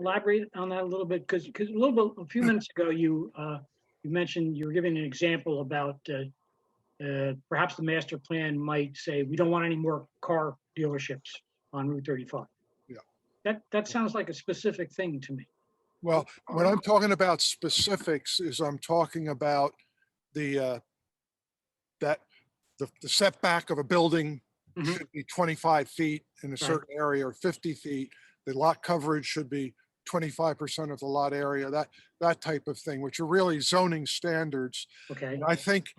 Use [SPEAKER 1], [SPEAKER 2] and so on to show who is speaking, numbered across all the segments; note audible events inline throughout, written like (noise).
[SPEAKER 1] elaborate on that a little bit? Because, because a little bit, a few minutes ago, you, uh, you mentioned, you were giving an example about, uh, uh, perhaps the master plan might say, we don't want any more car dealerships on Route 35.
[SPEAKER 2] Yeah.
[SPEAKER 1] That, that sounds like a specific thing to me.
[SPEAKER 2] Well, when I'm talking about specifics is I'm talking about the, uh, that, the the setback of a building
[SPEAKER 1] Mhm.
[SPEAKER 2] should be 25 feet in a certain area or 50 feet. The lot coverage should be 25% of the lot area, that, that type of thing, which are really zoning standards.
[SPEAKER 1] Okay,
[SPEAKER 2] And I think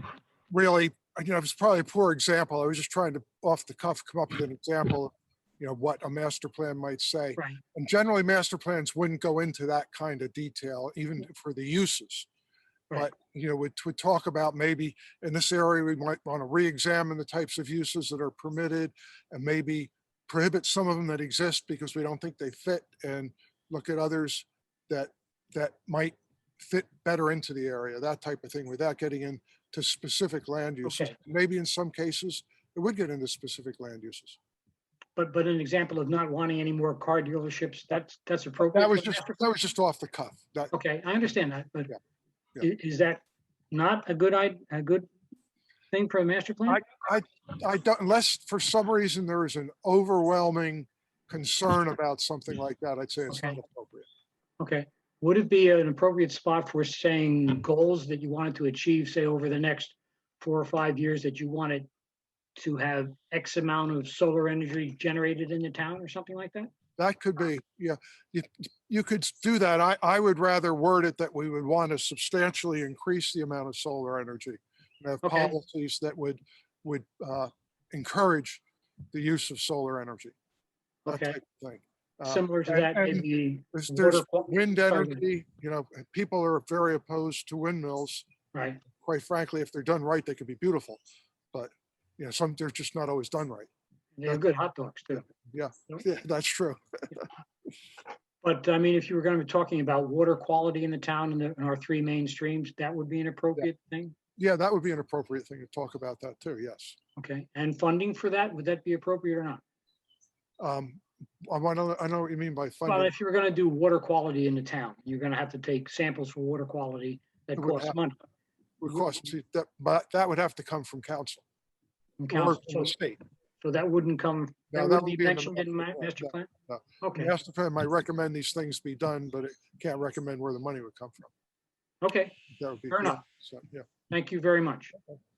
[SPEAKER 2] really, you know, it was probably a poor example. I was just trying to, off the cuff, come up with an example, of, you know, what a master plan might say.
[SPEAKER 1] right,
[SPEAKER 2] And generally, master plans wouldn't go into that kind of detail, even for the uses.
[SPEAKER 1] Right.
[SPEAKER 2] But, you know, we'd, we'd talk about maybe in this area, we might want to re-examine the types of uses that are permitted and maybe prohibit some of them that exist because we don't think they fit and look at others that, that might fit better into the area, that type of thing, without getting into specific land uses.
[SPEAKER 1] Okay.
[SPEAKER 2] Maybe in some cases, it would get into specific land uses.
[SPEAKER 1] but, but an example of not wanting any more car dealerships, that's, that's appropriate.
[SPEAKER 2] That was
[SPEAKER 1] for the
[SPEAKER 2] just,
[SPEAKER 1] master-
[SPEAKER 2] that was just off the cuff. That,
[SPEAKER 1] Okay, I understand that, but
[SPEAKER 2] Yeah, yeah.
[SPEAKER 1] i- is that not a good, i- a good thing for a master plan?
[SPEAKER 2] I don't, unless for some reason there is an overwhelming concern about something like that, I'd say it's not
[SPEAKER 1] Okay.
[SPEAKER 2] appropriate.
[SPEAKER 1] Okay, would it be an appropriate spot for saying goals that you wanted to achieve, say, over the next four or five years that you wanted to have X amount of solar energy generated in the town or something like that?
[SPEAKER 2] That could be, yeah, you, you could do that. I, I would rather word it that we would want to substantially increase the amount of solar energy. And have
[SPEAKER 1] Okay.
[SPEAKER 2] policies that would, would, uh, encourage the use of solar energy. that
[SPEAKER 1] Okay,
[SPEAKER 2] type of Thing. Uh,
[SPEAKER 1] similar to
[SPEAKER 2] and-
[SPEAKER 1] that,
[SPEAKER 2] and
[SPEAKER 1] maybe.
[SPEAKER 2] There's,
[SPEAKER 1] water
[SPEAKER 2] there's
[SPEAKER 1] qual-
[SPEAKER 2] wind
[SPEAKER 1] sorry, go
[SPEAKER 2] energy, you know, people are very opposed to windmills.
[SPEAKER 1] Right,
[SPEAKER 2] quite frankly, if they're done right, they can be beautiful. But, you know, some, they're just not always done right. (laughs)
[SPEAKER 1] they're good hot dogs too.
[SPEAKER 2] Yeah, that's true.
[SPEAKER 1] But I mean, if you were going to be talking about water quality in the town and the- and our three main streams, that would be an appropriate thing?
[SPEAKER 2] Yeah, that would be an appropriate thing to talk about that too, yes.
[SPEAKER 1] Okay, and funding for that, would that be appropriate or not?
[SPEAKER 2] Um, I want to, I know what you mean by
[SPEAKER 1] Well,
[SPEAKER 2] funding.
[SPEAKER 1] if you were gonna do water quality in the town, you're gonna have to take samples for water quality that
[SPEAKER 2] It would
[SPEAKER 1] costs
[SPEAKER 2] have-
[SPEAKER 1] money.
[SPEAKER 2] Would cost, to- that, but that would have to come from council
[SPEAKER 1] from
[SPEAKER 2] or
[SPEAKER 1] council.
[SPEAKER 2] from
[SPEAKER 1] So
[SPEAKER 2] the state.
[SPEAKER 1] so that wouldn't come,
[SPEAKER 2] No,
[SPEAKER 1] that
[SPEAKER 2] that
[SPEAKER 1] would
[SPEAKER 2] would
[SPEAKER 1] be
[SPEAKER 2] be in the
[SPEAKER 1] mentioned in my
[SPEAKER 2] master plan,
[SPEAKER 1] master plan?
[SPEAKER 2] no.
[SPEAKER 1] Okay,
[SPEAKER 2] Master plan might recommend these things be done, but it can't recommend where the money would come from.
[SPEAKER 1] okay,
[SPEAKER 2] That would be.
[SPEAKER 1] Fair
[SPEAKER 2] yeah,
[SPEAKER 1] enough.
[SPEAKER 2] So, yeah.
[SPEAKER 1] thank you very much.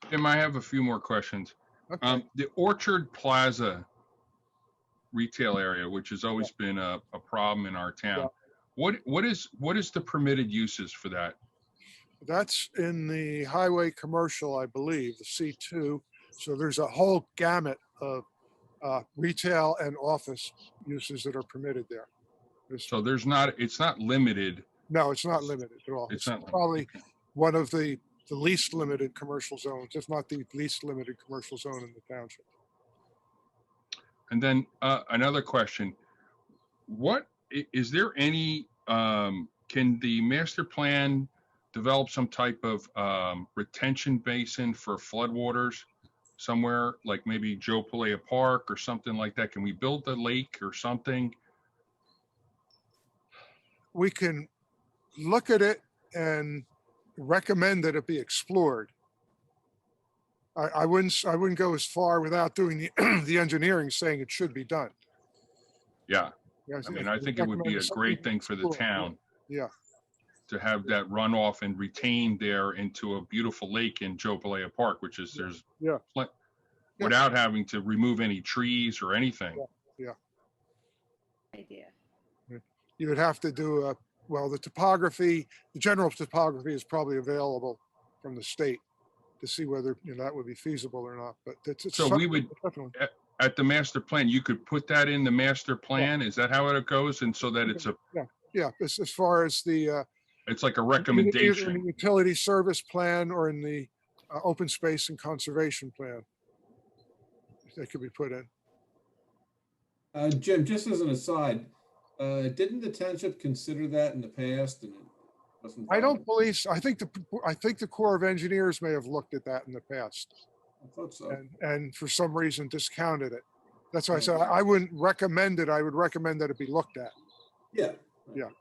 [SPEAKER 3] Tim, I have a few more questions.
[SPEAKER 2] Okay.
[SPEAKER 3] Um, the Orchard Plaza retail area, which has always been a, a problem in our
[SPEAKER 2] Yeah.
[SPEAKER 3] town. What, what is, what is the permitted uses for that?
[SPEAKER 2] That's in the highway commercial, I believe, the C2. So there's a whole gamut of uh, retail and office uses that are permitted there. There's-
[SPEAKER 3] So there's not, it's not limited.
[SPEAKER 2] No, it's not limited at all.
[SPEAKER 3] It's not limited,
[SPEAKER 2] Probably one of the, the least limited commercial zones, if not the least limited commercial zone in the township.
[SPEAKER 3] And then, uh, another question. What, i- is there any, um, can the master plan develop some type of, um, retention basin for floodwaters? Somewhere like maybe Joe Palea Park or something like that? Can we build the lake or something?
[SPEAKER 2] We can look at it and recommend that it be explored. I, I wouldn't, s- I wouldn't go as far without doing the, (clears throat) the engineering saying it should be done.
[SPEAKER 3] Yeah,
[SPEAKER 2] Yeah,
[SPEAKER 3] I mean, I
[SPEAKER 2] would
[SPEAKER 3] think it would be
[SPEAKER 2] recommend
[SPEAKER 3] a
[SPEAKER 2] something-
[SPEAKER 3] great thing for the
[SPEAKER 2] cool, yeah,
[SPEAKER 3] town.
[SPEAKER 2] yeah.
[SPEAKER 3] To have that runoff and retained there into a beautiful lake in Jopalaya Park, which is there's.
[SPEAKER 2] Yeah.
[SPEAKER 3] plen-
[SPEAKER 2] Yeah.
[SPEAKER 3] Without having to remove any trees or anything.
[SPEAKER 4] idea.
[SPEAKER 2] You would have to do a, well, the topography, the general topography is probably available from the state to see whether, you know, that would be feasible or not, but that's. it's
[SPEAKER 3] So we
[SPEAKER 2] something
[SPEAKER 3] would-
[SPEAKER 2] definitely-
[SPEAKER 3] At the master plan, you could put that in the master plan. Is that how it goes? And so that it's a,
[SPEAKER 2] Yeah, as, as far as the. uh,
[SPEAKER 3] it's like
[SPEAKER 2] either- either
[SPEAKER 3] a
[SPEAKER 2] in the
[SPEAKER 3] recommendation.
[SPEAKER 2] Utility service plan or in the uh, open space and conservation plan. That could be put in.
[SPEAKER 5] Uh, Jim, just as an aside, uh, didn't the township consider that in the past and it wasn't?
[SPEAKER 2] I don't
[SPEAKER 5] viable?
[SPEAKER 2] believe, s- I think the, I think the Corps of Engineers may have looked at that in the past.
[SPEAKER 5] I thought so.
[SPEAKER 2] and, and for some reason discounted it. That's why I
[SPEAKER 5] Right.
[SPEAKER 2] said I I wouldn't recommend it. I would recommend that it be looked at.
[SPEAKER 5] Yeah,
[SPEAKER 2] Yeah.